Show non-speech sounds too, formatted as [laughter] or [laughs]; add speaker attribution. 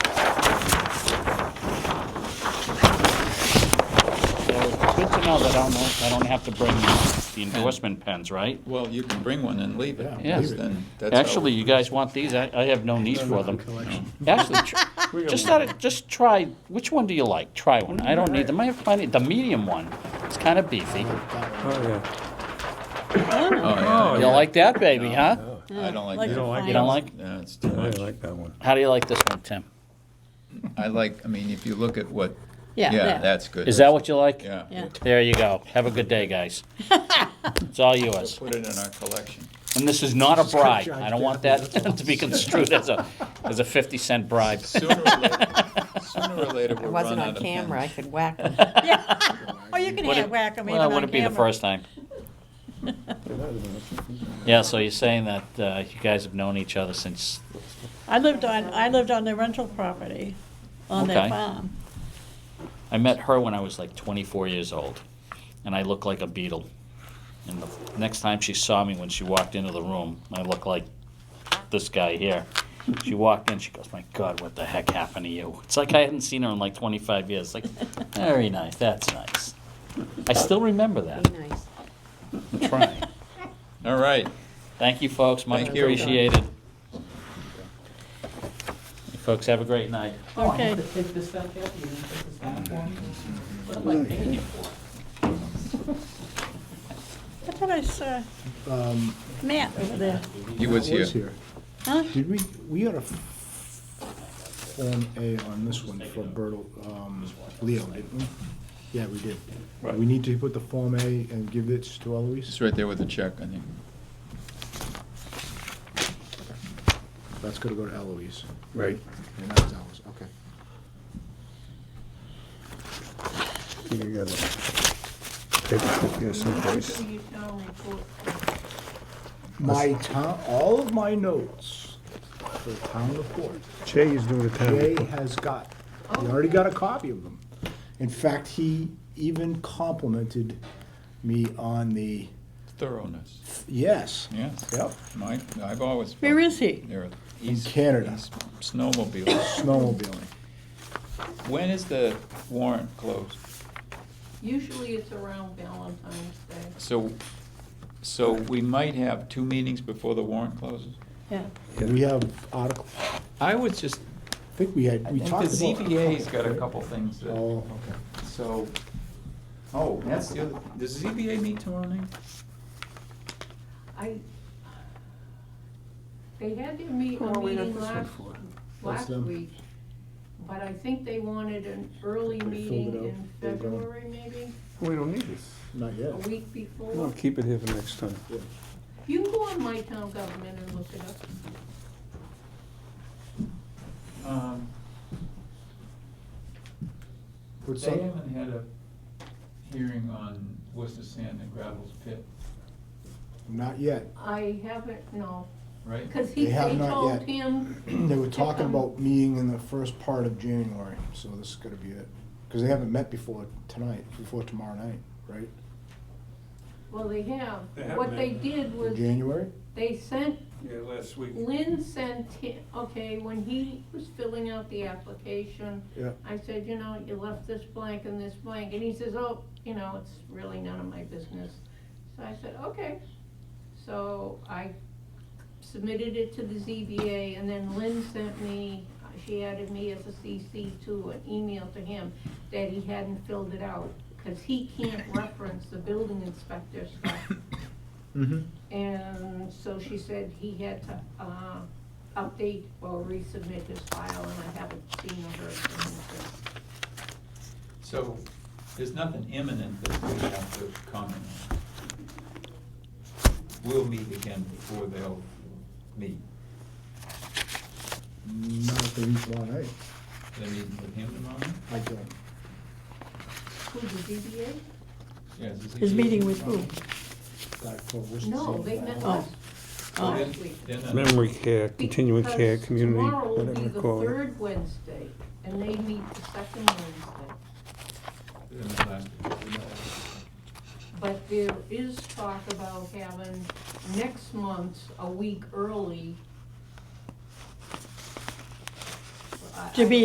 Speaker 1: No, but I don't know, I don't have to bring the endorsement pens, right?
Speaker 2: Well, you can bring one and leave it.
Speaker 1: Yeah.
Speaker 2: because then that's how-
Speaker 1: Actually, you guys want these, I, I have no need for them. Actually, tr- just out of, just try, which one do you like? Try one, I don't need them, I have plenty, the medium one, it's kind of beefy.
Speaker 3: Oh, yeah.
Speaker 2: Oh, yeah.
Speaker 1: You like that, baby, huh?
Speaker 2: I don't like that.
Speaker 4: Like You don't like
Speaker 1: You don't like,
Speaker 2: Yeah, it's too
Speaker 3: I
Speaker 2: much.
Speaker 3: like that one.
Speaker 1: how do you like this one, Tim?
Speaker 2: I like, I mean, if you look at what,
Speaker 4: Yeah,
Speaker 2: yeah,
Speaker 4: yeah.
Speaker 2: that's good.
Speaker 1: Is that what you like?
Speaker 2: Yeah.
Speaker 4: Yeah.
Speaker 1: There you go, have a good day, guys. It's all yours.
Speaker 2: Put it in our collection.
Speaker 1: And this is not a bribe. I don't want that [laughs] to be construed as a, as a 50 cent bribe.
Speaker 2: Sooner or later, sooner or later,
Speaker 5: I
Speaker 4: [laughs]
Speaker 2: we'll run
Speaker 5: wasn't
Speaker 2: out
Speaker 5: on
Speaker 2: of
Speaker 5: camera, I
Speaker 2: pens.
Speaker 5: could whack them.
Speaker 4: Or you can
Speaker 1: Would
Speaker 4: hand
Speaker 1: it-
Speaker 4: whack them even
Speaker 1: Well,
Speaker 4: on
Speaker 1: it wouldn't be the
Speaker 4: camera.
Speaker 1: first time. Yeah, so you're saying that uh, you guys have known each other since,
Speaker 4: I lived on, I lived on their rental property, on
Speaker 1: Okay.
Speaker 4: their farm.
Speaker 1: I met her when I was like 24 years old, and I looked like a beetle. And the next time she saw me, when she walked into the room, I looked like this guy here. She walked in, she goes, "My God, what the heck happened to you?" It's like I hadn't seen her in like 25 years. Like, very nice. That's nice. I still remember that.
Speaker 5: Be nice.
Speaker 4: [laughs]
Speaker 1: Trying.
Speaker 2: All right,
Speaker 1: Thank you, folks. Much
Speaker 2: Thank you.
Speaker 1: appreciated. You folks have a great night.
Speaker 6: Oh,
Speaker 4: Okay, I thought I saw Matt over there.
Speaker 2: he was
Speaker 7: I was
Speaker 2: here.
Speaker 7: here.
Speaker 4: Huh?
Speaker 7: Did we, we got a Form A on this one for Bertle, um, Leo, didn't we? Yeah, we did. We need to put the Form A and give it to
Speaker 2: It's
Speaker 7: Eloise?
Speaker 2: right there with the check, I think.
Speaker 7: That's gonna go to Eloise.
Speaker 3: Right.
Speaker 7: And that's Eloise, okay.
Speaker 3: You got a paper clip here someplace.
Speaker 7: My town, all of my notes for the town report,
Speaker 3: Jay is doing a town
Speaker 7: Jay
Speaker 3: report.
Speaker 7: has got, he already got a copy of them. In fact, he even complimented me on the,
Speaker 2: Thoroughness,
Speaker 7: yes.
Speaker 2: yeah.
Speaker 7: Yep,
Speaker 2: Mike, I've always. felt
Speaker 4: Where is he?
Speaker 2: There,
Speaker 7: in
Speaker 2: he's,
Speaker 7: Canada,
Speaker 2: he's snowmobiling.
Speaker 7: snowmobiling.
Speaker 2: When is the warrant closed?
Speaker 6: Usually it's around Valentine's Day.
Speaker 2: So, so we might have two meetings before the warrant closes?
Speaker 4: Yeah.
Speaker 7: We have article,
Speaker 2: I would just,
Speaker 7: I think we had,
Speaker 2: I
Speaker 7: we
Speaker 2: think the
Speaker 7: talked about.
Speaker 2: ZBA's got a couple things that,
Speaker 7: Oh, okay.
Speaker 2: so, oh, that's the other, does the ZBA meet tomorrow night?
Speaker 6: I, they had their meet, a meeting last, last
Speaker 7: them.
Speaker 6: week, but I think they wanted an early
Speaker 7: filled
Speaker 6: meeting
Speaker 7: it out.
Speaker 6: in
Speaker 7: They're gone.
Speaker 6: February, maybe,
Speaker 3: We don't need this.
Speaker 7: Not
Speaker 6: a
Speaker 7: yet.
Speaker 6: week
Speaker 3: I'll
Speaker 6: before.
Speaker 3: keep it here for next time.
Speaker 6: You can go on my town government and look it up.
Speaker 2: Um,
Speaker 7: What's
Speaker 2: They
Speaker 7: up?
Speaker 2: haven't had a hearing on Worcester Sand and Gravel's pit,
Speaker 7: Not yet.
Speaker 6: I haven't, no,
Speaker 2: right?
Speaker 6: because he,
Speaker 7: They
Speaker 6: they
Speaker 7: have not
Speaker 6: told
Speaker 7: yet.
Speaker 6: him,
Speaker 7: They were talking about meeting in the first part of January, so this is gonna be it. Because they haven't met before tonight, before tomorrow night, right?
Speaker 6: well, they have. What they did
Speaker 7: In
Speaker 6: was,
Speaker 7: January?
Speaker 6: they sent
Speaker 3: Yeah, last week.
Speaker 6: Lynn sent him, okay, when he was filling out the application,
Speaker 7: Yeah.
Speaker 6: I said, you know, you left this blank and this blank, and he says, oh, you know, it's really none of my business. So I said, okay. So I submitted it to the ZBA, and then Lynn sent me, she added me as a CC to an email to him that he hadn't filled it out, because he can't reference the building inspector stuff.
Speaker 7: Mm-hmm.
Speaker 6: And so she said he had to, uh, update or resubmit his file, and I haven't seen or heard from him since.
Speaker 2: So, there's nothing imminent that we have to comment on. We'll meet again before they'll meet.
Speaker 7: Not if they meet tomorrow night.
Speaker 2: They're meeting with him tomorrow? night?
Speaker 7: eh? I don't.
Speaker 6: Who, the ZBA?
Speaker 2: Yeah, is the
Speaker 4: His
Speaker 2: ZBA
Speaker 4: meeting with
Speaker 2: tomorrow
Speaker 4: who?
Speaker 2: night?
Speaker 7: Like, Oh, for Worcester
Speaker 6: No,
Speaker 7: Sand
Speaker 6: they
Speaker 7: and
Speaker 6: met
Speaker 7: Gravel.
Speaker 6: last,
Speaker 4: Oh.
Speaker 2: Well,
Speaker 6: last
Speaker 2: then-
Speaker 6: week.
Speaker 2: then I-
Speaker 3: Memory care, continuing care,
Speaker 6: Because
Speaker 3: community,
Speaker 6: tomorrow will be
Speaker 3: whatever
Speaker 6: the
Speaker 3: you call it.
Speaker 6: third Wednesday, and they meet the second Wednesday.
Speaker 2: then I last-
Speaker 6: But there is talk about having next month a week early. I-
Speaker 4: To be